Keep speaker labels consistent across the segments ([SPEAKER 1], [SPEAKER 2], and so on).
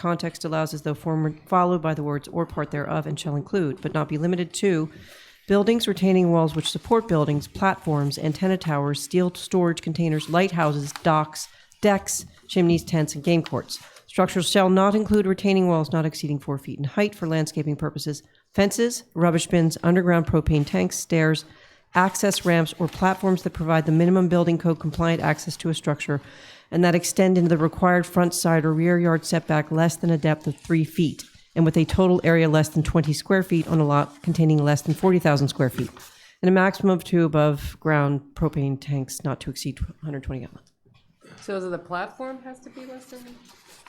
[SPEAKER 1] Context allows as though form followed by the words or part thereof and shall include, but not be limited to, buildings, retaining walls which support buildings, platforms, antenna towers, steel storage containers, lighthouses, docks, decks, chimneys, tents, and game courts. Structures shall not include retaining walls not exceeding four feet in height for landscaping purposes, fences, rubbish bins, underground propane tanks, stairs, access ramps, or platforms that provide the minimum building code compliant access to a structure and that extend into the required front, side, or rear yard setback less than a depth of three feet and with a total area less than 20 square feet on a lot containing less than 40,000 square feet and a maximum of two above ground propane tanks not to exceed 120 gallons.
[SPEAKER 2] So is it the platform has to be less than?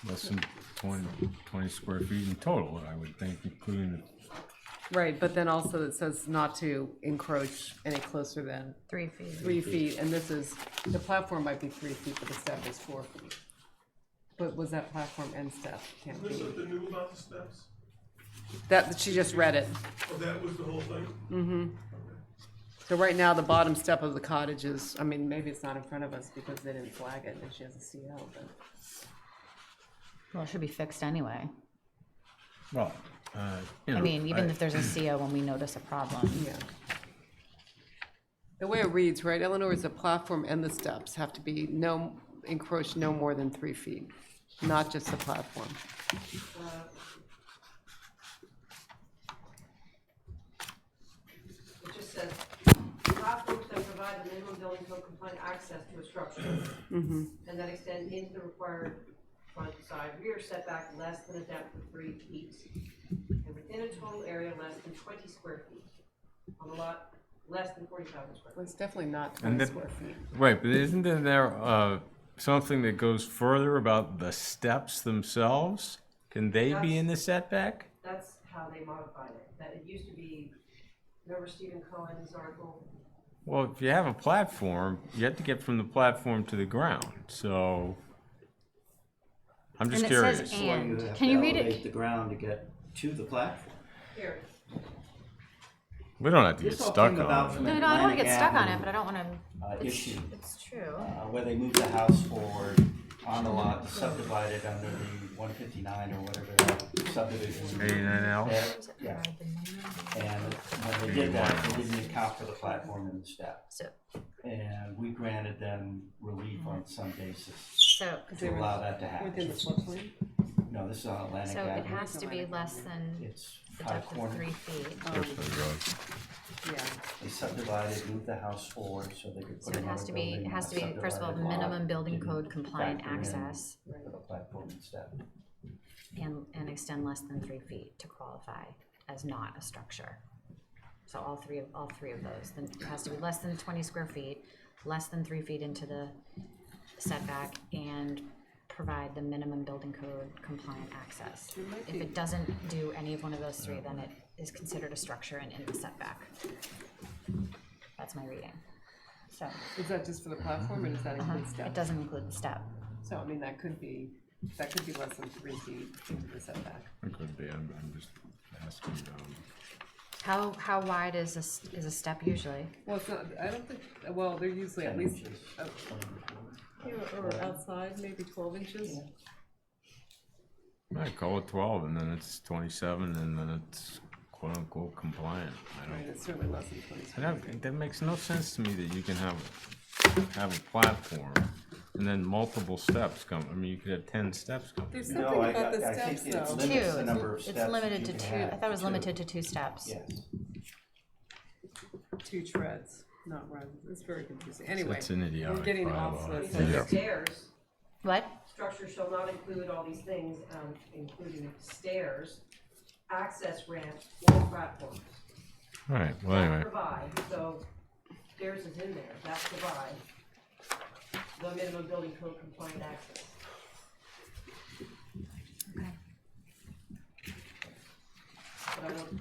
[SPEAKER 3] Less than 20 20 square feet in total, I would think, including,
[SPEAKER 2] Right, but then also it says not to encroach any closer than
[SPEAKER 4] Three feet.
[SPEAKER 2] three feet, and this is, the platform might be three feet, but the step is four feet. But was that platform and step? Can't
[SPEAKER 5] This
[SPEAKER 2] be.
[SPEAKER 5] is the new about the steps?
[SPEAKER 2] That, she just read it.
[SPEAKER 5] Oh, that was the whole thing?
[SPEAKER 2] So right now, the bottom step of the cottage is, I mean, maybe it's not in front of us because they didn't flag it and she has a CO, but.
[SPEAKER 4] Well, it should be fixed anyway.
[SPEAKER 3] well, uh, you know.
[SPEAKER 4] I mean, even if there's a CO when we notice a problem.
[SPEAKER 2] Yeah. The way it reads, right, Eleanor, is the platform and the steps have to be no, encroach no more than three feet, not just the platform.
[SPEAKER 6] It just says, platforms that provide the minimum building code compliant access to a structure. And that extend into the required front, side, rear setback less than a depth of three feet. And within a total area less than twenty square feet. On a lot less than forty thousand square
[SPEAKER 2] Well, It's definitely not
[SPEAKER 3] And
[SPEAKER 2] twenty
[SPEAKER 3] the-
[SPEAKER 2] square feet.
[SPEAKER 3] Right, but isn't there- there uh, something that goes further about the steps themselves? Can they be in the setback?
[SPEAKER 6] feet. That's how they modified it. That it used to be, remember Stephen Cohen's article?
[SPEAKER 3] Well, if you have a platform, you have to get from the platform to the ground, so I'm
[SPEAKER 4] And
[SPEAKER 3] just
[SPEAKER 4] it says
[SPEAKER 3] curious.
[SPEAKER 4] and.
[SPEAKER 7] You have
[SPEAKER 4] Can
[SPEAKER 7] to
[SPEAKER 4] you read it?
[SPEAKER 7] elevate The ground to get to the platform.
[SPEAKER 6] Here,
[SPEAKER 3] We don't have to get
[SPEAKER 7] This whole
[SPEAKER 3] stuck
[SPEAKER 7] thing
[SPEAKER 3] on
[SPEAKER 7] about
[SPEAKER 3] it.
[SPEAKER 7] from
[SPEAKER 4] No, no, I don't want to
[SPEAKER 7] Atlantic
[SPEAKER 4] get stuck on it,
[SPEAKER 7] Avenue,
[SPEAKER 4] but I don't want to,
[SPEAKER 7] uh, Issue,
[SPEAKER 4] it's true.
[SPEAKER 7] uh, where they moved the house forward on the lot to subdivide it under the one fifty-nine or whatever that subdivision. was.
[SPEAKER 3] 89L.
[SPEAKER 7] And- Yeah, and when they did that, they didn't account for the platform and the step.
[SPEAKER 4] So,
[SPEAKER 7] And we granted them relief on some basis
[SPEAKER 4] so,
[SPEAKER 7] to allow that to happen.
[SPEAKER 2] Within the floodplain?
[SPEAKER 7] No, this is on Atlantic
[SPEAKER 4] so it
[SPEAKER 7] Avenue.
[SPEAKER 4] has to be less than
[SPEAKER 7] It's
[SPEAKER 4] the
[SPEAKER 7] five
[SPEAKER 4] depth of
[SPEAKER 7] corners.
[SPEAKER 4] three feet.
[SPEAKER 2] Yeah,
[SPEAKER 7] They subdivided, moved the house forward so they could
[SPEAKER 4] So
[SPEAKER 7] put
[SPEAKER 4] it has
[SPEAKER 7] another
[SPEAKER 4] to be,
[SPEAKER 7] building.
[SPEAKER 4] it has to be, first of all,
[SPEAKER 7] subdivided lot,
[SPEAKER 4] minimum building
[SPEAKER 7] didn't
[SPEAKER 4] code compliant
[SPEAKER 7] factor in
[SPEAKER 4] access
[SPEAKER 7] For the platform and step.
[SPEAKER 4] and, and extend less than three feet to qualify as not a structure. So all three, of all three of those, then it has to be less than twenty square feet, less than three feet into the setback and provide the minimum building code compliant access. If it doesn't do any of one of those three, then it is considered a structure and in the setback. That's my reading. So,
[SPEAKER 2] is that just for the platform or Uh-huh. does that include
[SPEAKER 4] it
[SPEAKER 2] steps?
[SPEAKER 4] doesn't include the step.
[SPEAKER 2] So I mean, that could be, that could be less than three feet into the setback.
[SPEAKER 3] It could be, I'm, I'm just asking, um,
[SPEAKER 4] How, how wide is a, s- is a step usually?
[SPEAKER 2] Well, it's not, I don't think, well, they're usually at least, uh, or outside, maybe twelve inches.
[SPEAKER 3] I call it twelve, and then it's twenty-seven, and then it's quote-unquote compliant, I
[SPEAKER 2] Right,
[SPEAKER 3] don't.
[SPEAKER 2] it's certainly less than twenty.
[SPEAKER 3] I don't, that makes no sense to me that you can have, have a platform and then multiple steps come, I mean, you could have ten steps come.
[SPEAKER 2] There's
[SPEAKER 7] No,
[SPEAKER 2] something
[SPEAKER 7] I-
[SPEAKER 2] about the
[SPEAKER 7] I- I think
[SPEAKER 2] steps
[SPEAKER 7] it's
[SPEAKER 2] though.
[SPEAKER 7] lim-
[SPEAKER 4] Two,
[SPEAKER 7] limits the
[SPEAKER 4] it's-
[SPEAKER 7] number of steps
[SPEAKER 4] It's
[SPEAKER 7] that
[SPEAKER 4] limited
[SPEAKER 7] you
[SPEAKER 4] to
[SPEAKER 7] can
[SPEAKER 4] two,
[SPEAKER 7] have.
[SPEAKER 4] I thought it was
[SPEAKER 7] Two.
[SPEAKER 4] limited to two steps.
[SPEAKER 7] Yes.
[SPEAKER 2] two treads, not runs. It's very confusing. Anyway,
[SPEAKER 3] It's an idiotic
[SPEAKER 2] we're getting off
[SPEAKER 3] bylaw.
[SPEAKER 2] the
[SPEAKER 6] it says stairs.
[SPEAKER 4] What?
[SPEAKER 6] Structure shall not include all these things, um, including stairs, access ramps, or platforms.
[SPEAKER 3] Alright, well,
[SPEAKER 6] That
[SPEAKER 3] anyway,
[SPEAKER 6] provide, so stairs is in there, that provide the minimum building code compliant access.
[SPEAKER 4] Okay.
[SPEAKER 6] But I don't,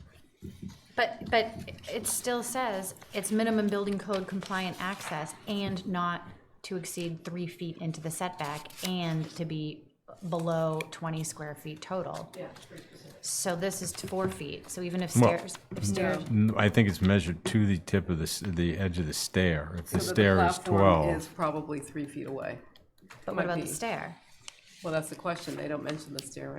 [SPEAKER 4] But, but it still says it's minimum building code compliant access and not to exceed three feet into the setback and to be below twenty square feet total.
[SPEAKER 6] yeah, it's pretty specific.
[SPEAKER 4] So this is to four feet, so even if
[SPEAKER 3] Well-
[SPEAKER 4] stairs, if stairs,
[SPEAKER 3] N- I think it's measured to the tip of the, s- the edge of the stair, if the
[SPEAKER 2] So that
[SPEAKER 3] stair is
[SPEAKER 2] platform
[SPEAKER 3] twelve.
[SPEAKER 2] Is probably three feet away.
[SPEAKER 4] but
[SPEAKER 2] might
[SPEAKER 4] what about
[SPEAKER 2] be.
[SPEAKER 4] the stair?
[SPEAKER 2] Well, that's the question. They don't mention the stair